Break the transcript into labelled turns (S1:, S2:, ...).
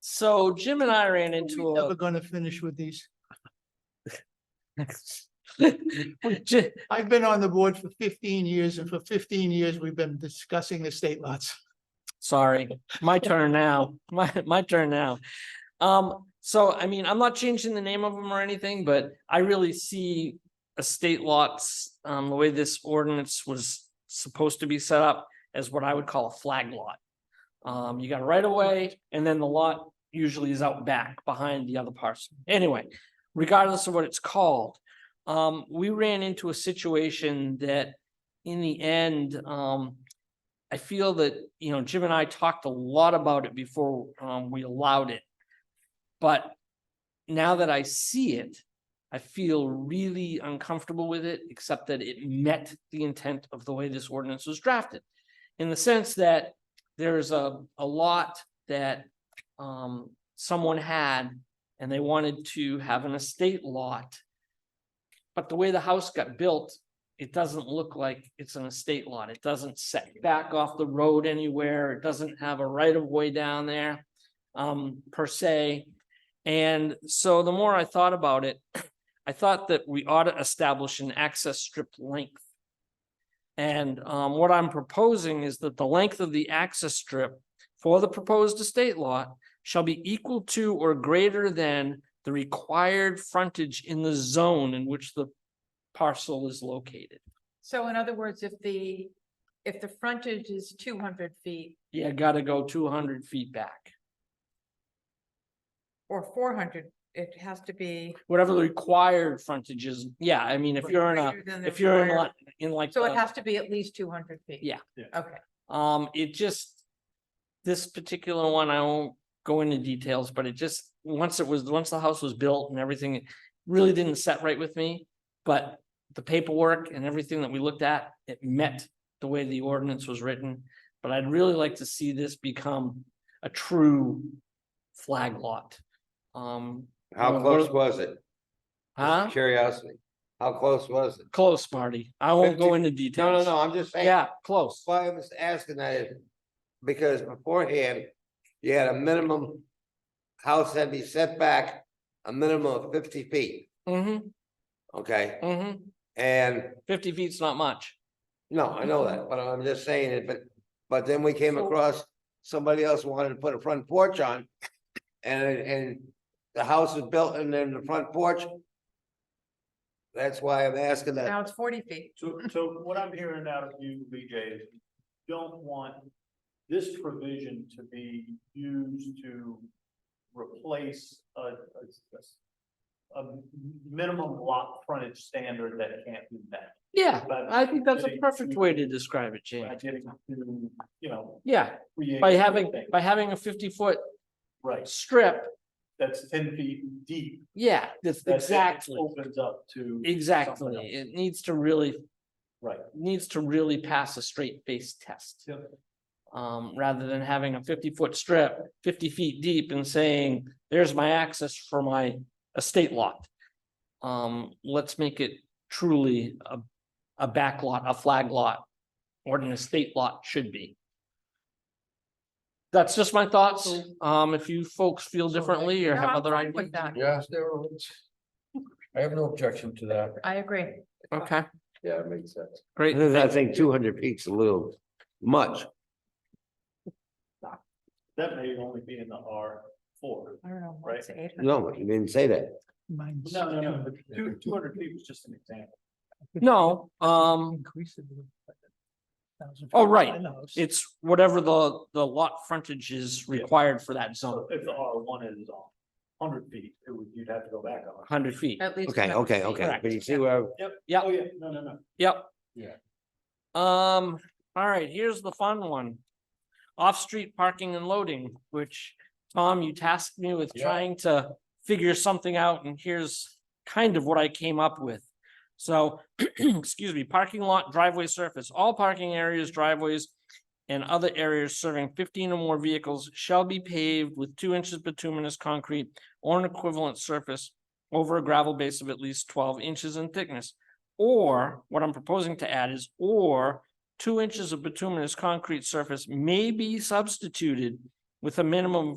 S1: So Jim and I ran into
S2: We're
S1: a.
S2: never gonna finish with these.
S1: Ji-
S2: I've been on the board for fifteen years and for fifteen years, we've been discussing estate lots.
S1: Sorry, my turn now, my, my turn now. Um, so I mean, I'm not changing the name of them or anything, but I really see estate lots, um, the way this ordinance was supposed to be set up as what I would call a flag lot. Um, you got a right of way and then the lot usually is out back behind the other parcel. Anyway, regardless of what it's called, um, we ran into a situation that in the end, um, I feel that, you know, Jim and I talked a lot about it before um we allowed it. But now that I see it, I feel really uncomfortable with it, except that it met the intent of the way this ordinance was drafted. In the sense that there's a a lot that um someone had and they wanted to have an estate lot. But the way the house got built, it doesn't look like it's an estate lot. It doesn't set back off the road anywhere. It doesn't have a right of way down there. Um, per se. And so the more I thought about it, I thought that we ought to establish an access strip length. And um, what I'm proposing is that the length of the access strip for the proposed estate lot shall be equal to or greater than the required frontage in the zone in which the parcel is located.
S3: So in other words, if the, if the frontage is two hundred feet
S1: Yeah, gotta go two hundred feet back,
S3: or four hundred, it has to be.
S1: whatever the required frontage is. Yeah, I mean, if you're in a,
S3: greater than the
S1: if you're in
S3: required-
S1: like, in like.
S3: So it
S1: the-
S3: has to be at least two hundred feet?
S1: Yeah.
S2: Yeah.
S3: Okay,
S1: Um, it just, this particular one, I won't go into details, but it just, once it was, once the house was built and everything, it really didn't set right with me. But the paperwork and everything that we looked at, it met the way the ordinance was written. But I'd really like to see this become a true flag lot. Um,
S4: How
S1: Well,
S4: close
S1: what-
S4: was it?
S1: huh?
S4: Curiosity. How close was it?
S1: Close, Marty. I won't go
S4: Fifty-
S1: into
S4: No, no,
S1: details.
S4: no, I'm just saying.
S1: Yeah, close.
S4: Why I was asking that is because beforehand, you had a minimum house had to be set back a minimum of fifty feet,
S1: Mm-hmm,
S4: okay?
S1: mm-hmm.
S4: And
S1: Fifty feet's not much.
S4: no, I know that, but I'm just saying it, but, but then we came
S1: So-
S4: across somebody else wanted to put a front porch on. And, and the house was built and then the front porch. That's why I'm asking that.
S3: now it's forty feet.
S5: So, so what I'm hearing out of you, BJ, is you don't want this provision to be used to replace a, a- a minimum lot frontage standard that can't be met.
S1: Yeah,
S5: But
S1: I think that's a
S5: getting
S1: perfect
S5: to-
S1: way to describe it, Jane.
S5: By getting to, you know,
S1: Yeah,
S5: create.
S1: by having,
S5: things.
S1: by having a fifty foot
S5: Right,
S1: strip,
S5: that's ten feet deep.
S1: yeah, that's
S5: That it
S1: exactly,
S5: Opens up to.
S1: exactly.
S5: something else.
S1: It needs to really,
S5: Right.
S1: needs to really pass a straight face test. Um, rather than having a fifty foot strip, fifty feet deep and saying, there's my access for my estate lot. Um, let's make it truly a, a back lot, a flag lot, or an estate lot should be. That's just my thoughts. Um, if you folks feel differently or
S3: No,
S1: have
S3: I'm
S1: other
S3: fine with
S1: ideas.
S3: that.
S6: Yes, there was. I have no objection to that.
S3: I agree.
S1: Okay,
S6: Yeah, it makes sense.
S1: great.
S4: I think two hundred feet's a little much.
S5: That may only be in the R four.
S3: I don't know,
S5: Right.
S3: it's eight hundred.
S4: No, you didn't say that.
S2: Mine's
S5: No, no, no, but
S2: two-
S5: two, two hundred feet was just an example.
S1: No, um,
S2: Increase it. a little bit. 1,000
S1: Oh,
S2: feet
S1: right.
S2: in the house.
S1: it's whatever the, the lot frontage is required for that zone,
S5: So if the R one is on hundred feet, it would, you'd have to go back on.
S1: hundred feet.
S3: At least.
S4: Okay,
S3: 200
S4: okay,
S3: feet.
S4: okay.
S1: Correct.
S4: But you see where, I-
S1: Yep.
S5: Oh, yeah, no, no, no.
S1: Yep.
S6: Yeah.
S1: Um, all right, here's the fun one. Off-street parking and loading, which Tom, you tasked me with
S6: Yeah.
S1: trying to figure something out and here's kind of what I came up with. So, excuse me, parking lot, driveway surface, all parking areas, driveways and other areas serving fifteen or more vehicles shall be paved with two inches bituminous concrete or an equivalent surface over a gravel base of at least twelve inches in thickness. Or, what I'm proposing to add is, or two inches of bituminous concrete surface may be substituted with a minimum of